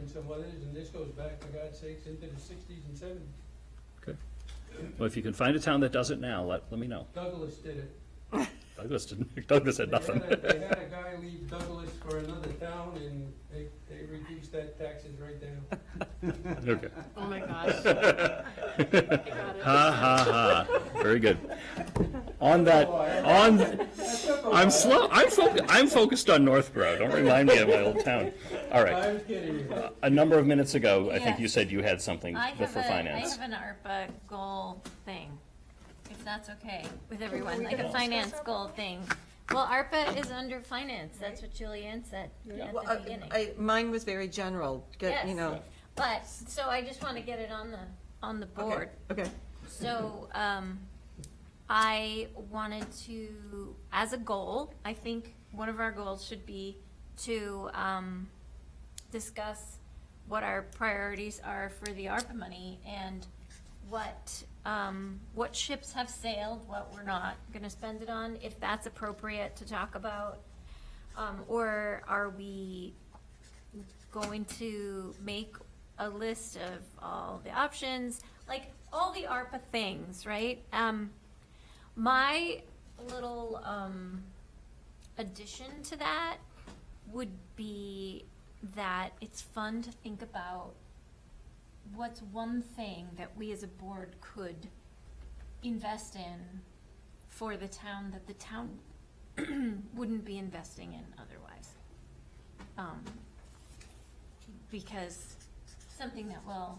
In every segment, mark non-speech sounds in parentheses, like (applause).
than what it is, and this goes back, for God's sakes, into the sixties and seventies. Well, if you can find a town that does it now, let, let me know. Douglas did it. Douglas didn't, (laughs) Douglas said They nothing. had a- They had a guy leave Douglas for another town, and they, they reduced that taxes right down. (laughs) Okay. Oh my gosh. I got it. Ha, ha, ha. Very good. On that, on, I'm slow, I'm focused, I'm focused on Northborough. Don't remind me of my old town. All right. I was kidding you. A number of minutes ago, I think Yeah. you said you had something I for have a, I finance. have an ARPA goal thing, if that's okay with everyone, we like a gonna finance discuss goal thing. Well, ARPA is under finance, that's what Julianne said at Well, uh, the I- beginning. I, mine was very general, get, you Yes. know. But, so I just want to get it on the, on the Okay, board. Okay, So, um, I wanted to, as a goal, I think one of our goals should be to, um, discuss what our priorities are for the ARPA money and what, um, what ships have sailed, what we're not gonna spend it on, if that's appropriate to talk about. Um, or are we going to make a list of all the options, like all the ARPA things, right? Um, my little um, addition to that would be that it's fun to think about what's one thing that we as a board could invest in for the town that the town (clears throat) wouldn't be investing in otherwise. Um, because something that will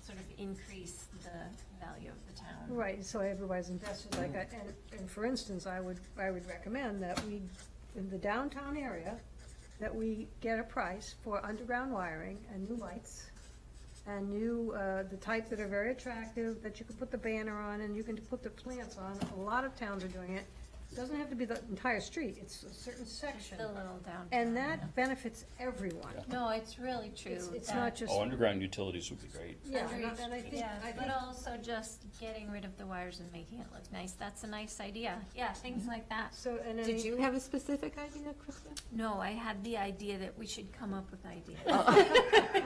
sort of increase the value of the town. Right, so everybody's invested, like, I- and, and for instance, I would, I would recommend that we, in the downtown area, that we get a price for underground wiring and new lights, and new, uh, the type that are very attractive, that you can put the banner on, and you can put the plants on, a lot of towns are doing it. Doesn't have to be the entire street, it's a certain section, The little downtown. and that benefits everyone. No, it's really true. It's, it's that- not just, Oh, underground utilities would be great. yeah, and I and I think, Yeah, I think but uh, also just getting rid of the wires and making it look nice. That's a nice idea. Yeah, Mm-hmm. things like that. So, and I did mean- you have a specific idea, Krista? No, I had the idea that we should come up with ideas. (laughs) Oh.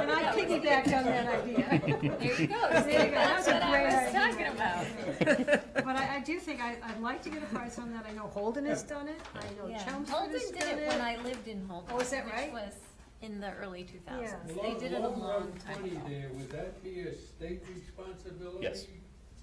and I piggybacked on that idea. There you go. (laughs) There you See, go. That's That's a what I great was idea. talking about. But I, I do think, I, I'd like to get a price on that, I know Holden has done it, I know Yeah. Chelmsford Holden has did done it when it. I lived in Holden. Oh, is that right? Which was in the early two thousands. Along- They did it a along long Route time 20 ago. there, would that be a state responsibility? Yes.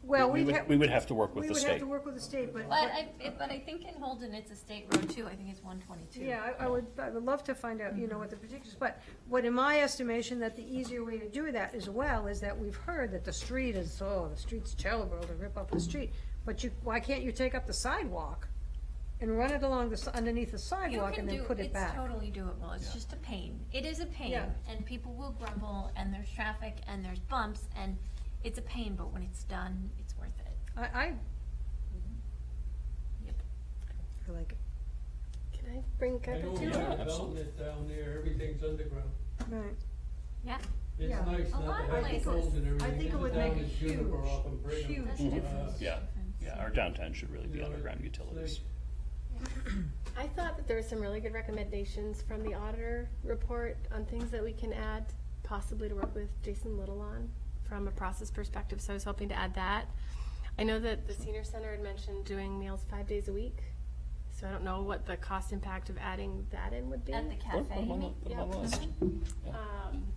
Well, We we'd would, have, we we would have to work with the would have state. to work with the state, but, But I, it- but I think in Holden, it's a state road too. I think it's one but- twenty-two. yeah, I, I would, I would love to find out, you know, what the particulars, but what in my estimation, that the easier way to do that as well, is that we've heard that the street is, oh, the street's terrible, to rip up the street, but you, why can't you take up the sidewalk and run it along the, s- underneath the You sidewalk can and then do- put it back? It's totally doable, it's just a pain. It is a pain, Yeah. and people will grumble, and there's traffic, and there's bumps, and it's a pain, but when it's done, it's worth it. I, I. Yep. I like it. Can I bring I know we Yeah, have absolutely. development down there, everything's underground. Right. Yeah, It's Yeah. nice A lot not of to have the places. poles and everything. I think it There's a would down make a in Juniper huge, off in Brigham. huge that's Uh, a difference. Yeah, yeah, our downtown should really be you know, underground it's utilities. I thought that there were some really good recommendations from the auditor report on things that we can add, possibly to work with Jason Little on from a process perspective, so I was hoping to add that. I know that the senior center had mentioned doing meals five days a week, so I don't know what the cost impact of adding that in would be. at the Put- put cafe. 'em on the- put 'em on the list. Um,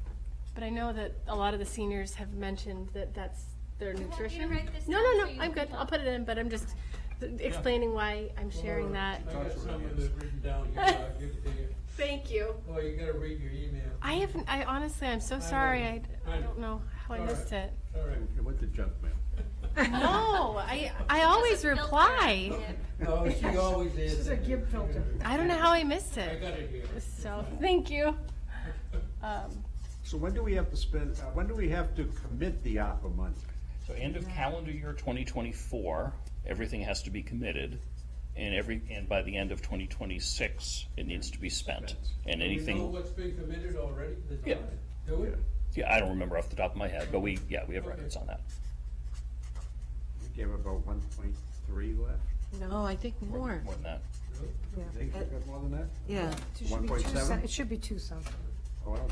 But I know that a lot of the seniors have mentioned that that's their want me to nutrition. write this No, down no, so you no, I'm can good, I'll talk? put it in, but I'm just explaining why I'm sharing that. I got some of it written down here, I'll give it to you. Thank you. Oh, you gotta read your email. I haven't, I honestly, I'm so sorry, I, I don't know how I All right. (laughs) missed it. All (laughs) right. It went to junk mail. No, I, I always filter. reply. No, she always is. This is a Gibb filter. I don't know how I missed I it, got it here. so, thank (laughs) you. Um, So when do we have to spend, uh, when do we have to commit the ARPA money? So end of calendar year twenty twenty-four, everything has to be committed, and every, and by the end of twenty twenty-six, it needs to be spent. And We know anything, what's been committed already, there's Yeah. not- do we? yeah, I don't remember off the top of my head, but we, yeah, we have Okay. records on that. We gave about one point three left. No, Oh, I think more, More than that. You think we got more than that? yeah. It should be two $1.7? some- It should be two something. Oh, I don't